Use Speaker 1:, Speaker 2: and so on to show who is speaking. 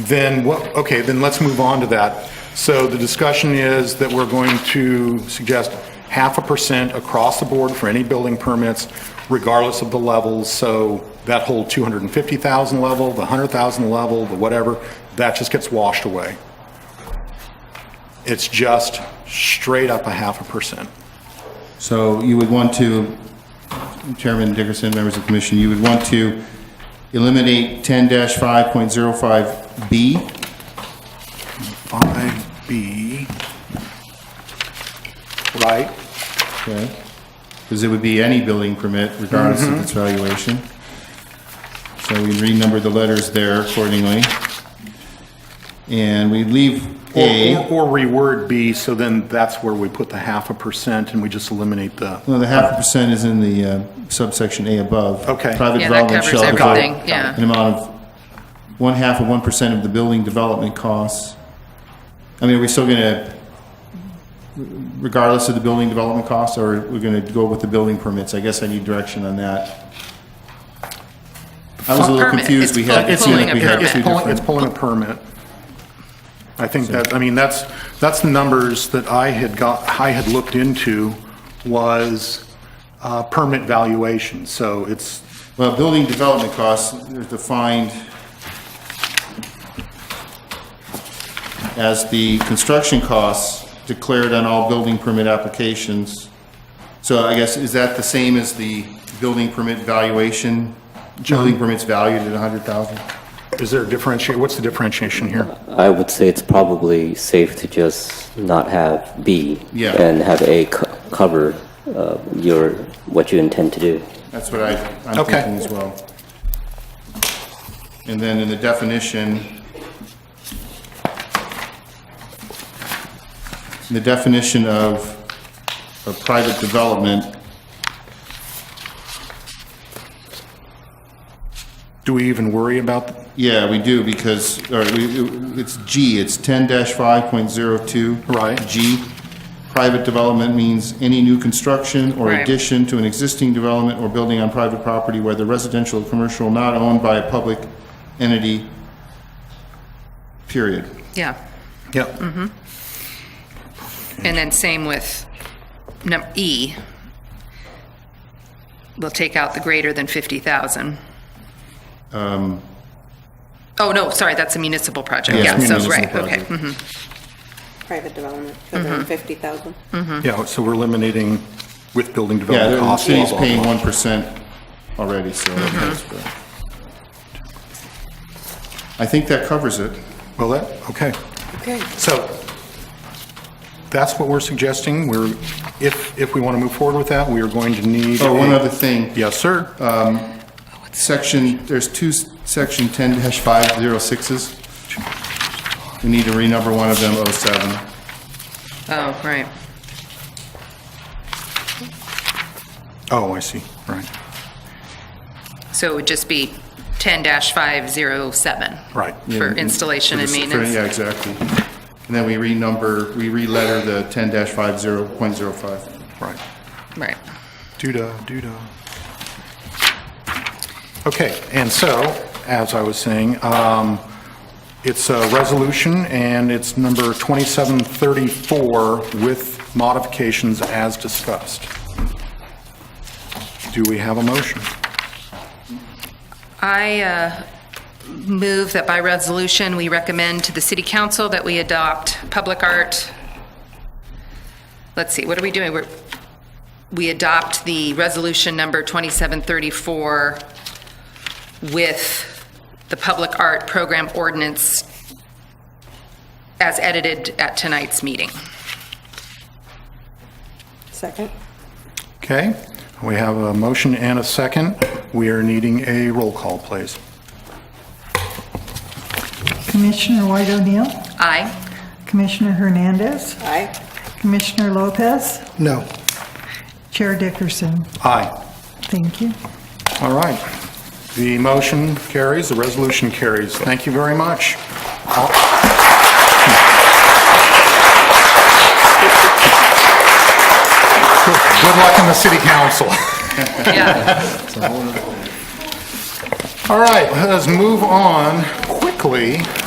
Speaker 1: Then what, okay, then let's move on to that. So the discussion is that we're going to suggest half a percent across the board for any building permits regardless of the levels. So that whole 250,000 level, the 100,000 level, the whatever, that just gets washed away. It's just straight up a half a percent.
Speaker 2: So you would want to, Chairman Dickerson, members of the commission, you would want to eliminate 10-5.05B,
Speaker 1: 5B, right?
Speaker 2: okay? Because it would be any building permit regardless
Speaker 1: Mm-hmm.
Speaker 2: of its valuation. So we renumber the letters there accordingly. And we leave
Speaker 1: Or-
Speaker 2: A.
Speaker 1: Or or reword B, so then that's where we put the half a percent and we just eliminate the,
Speaker 2: No, the half a percent is in the uh, subsection A above.
Speaker 1: Okay.
Speaker 2: Private
Speaker 3: Yeah, that
Speaker 2: development
Speaker 3: covers
Speaker 2: shall devote
Speaker 3: everything, yeah.
Speaker 2: An amount of one half of one percent of the building development costs. I mean, are we still gonna, regardless of the building development costs, or we're gonna go with the building permits? I guess I need direction on that. I was a little
Speaker 3: Permit,
Speaker 2: confused.
Speaker 3: it's
Speaker 2: We had,
Speaker 3: pu-
Speaker 2: it seemed
Speaker 3: pulling
Speaker 2: like
Speaker 3: a
Speaker 2: we had
Speaker 3: permit.
Speaker 2: two
Speaker 1: it's pulling,
Speaker 2: different-
Speaker 1: it's pulling a permit. I think that, I mean, that's, that's the numbers that I had got, I had looked into was uh, permit valuation, so it's,
Speaker 2: Well, building development costs are defined as the construction costs declared on all building permit applications. So I guess, is that the same as the building permit valuation? Building permits valued at 100,000?
Speaker 1: is there a differentiate, what's the differentiation here?
Speaker 4: I would say it's probably safe to just not have B
Speaker 2: Yeah.
Speaker 4: and have A co- cover uh, your, what you intend to do.
Speaker 2: That's what I, I'm
Speaker 1: Okay.
Speaker 2: thinking as well. And then in the definition, the definition of, of private development,
Speaker 1: Do we even worry about,
Speaker 2: yeah, we do because, or we, it's G, it's ten five point zero two.
Speaker 1: Right.
Speaker 2: G, private development means any new construction or
Speaker 3: Right.
Speaker 2: addition to an existing development or building on private property, whether residential or commercial, not owned by a public entity, period.
Speaker 3: Yeah,
Speaker 2: Mm-hmm.
Speaker 1: yeah,
Speaker 3: and then same with num, E. We'll take out the greater than 50,000.
Speaker 2: Um,
Speaker 3: Oh, no, sorry, that's a municipal project,
Speaker 2: Yeah,
Speaker 3: yeah, so,
Speaker 2: municipal
Speaker 3: right, okay.
Speaker 2: project.
Speaker 3: mhm.
Speaker 5: private development for the 50,000.
Speaker 1: yeah, so we're eliminating with building
Speaker 2: Yeah,
Speaker 1: development
Speaker 2: the
Speaker 1: costs. blah,
Speaker 2: city's
Speaker 1: blah, blah.
Speaker 2: paying one percent already, so. that's good. I think that covers it.
Speaker 1: Well, that, okay.
Speaker 5: Okay.
Speaker 1: So that's what we're suggesting. We're, if, if we want to move forward with that, we are going to need.
Speaker 2: Oh, one
Speaker 1: a-
Speaker 2: other thing.
Speaker 1: Yes, sir. Uh,
Speaker 2: Um, Section, there's two, s- section ten dash five zero sixes. We need to renumber one of them, oh seven.
Speaker 3: Oh, right,
Speaker 1: Oh, I see, right,
Speaker 3: so it would just be 10-507
Speaker 1: right.
Speaker 3: for installation and
Speaker 2: For the- for-
Speaker 3: maintenance.
Speaker 2: Yeah, exactly. And then we renumber, we re-letter the ten dash five zero point zero five.
Speaker 1: Right.
Speaker 3: Right,
Speaker 1: Doo-dah, doo-dah. Okay, and so, as I was saying, um, it's a resolution, and it's number 2734 with modifications as discussed. Do we have a motion?
Speaker 3: I uh, move that by resolution, we recommend to the city council that we adopt public art, let's see, what are we doing? We're- We adopt the resolution number 2734 with the public art program ordinance as edited at tonight's meeting.
Speaker 5: Second?
Speaker 1: Okay, we have a motion and a second. We are needing a roll call, please.
Speaker 6: Commissioner White O'Neill,
Speaker 3: Aye?
Speaker 6: Commissioner Hernandez,
Speaker 5: Aye.
Speaker 6: Commissioner Lopez,
Speaker 1: No.
Speaker 6: Chair Dickerson.
Speaker 1: Aye.
Speaker 6: Thank you.
Speaker 1: All right. The motion carries, the resolution carries. Thank you very much. Good luck in the city council.
Speaker 3: Yeah.
Speaker 1: All right, let us move on quickly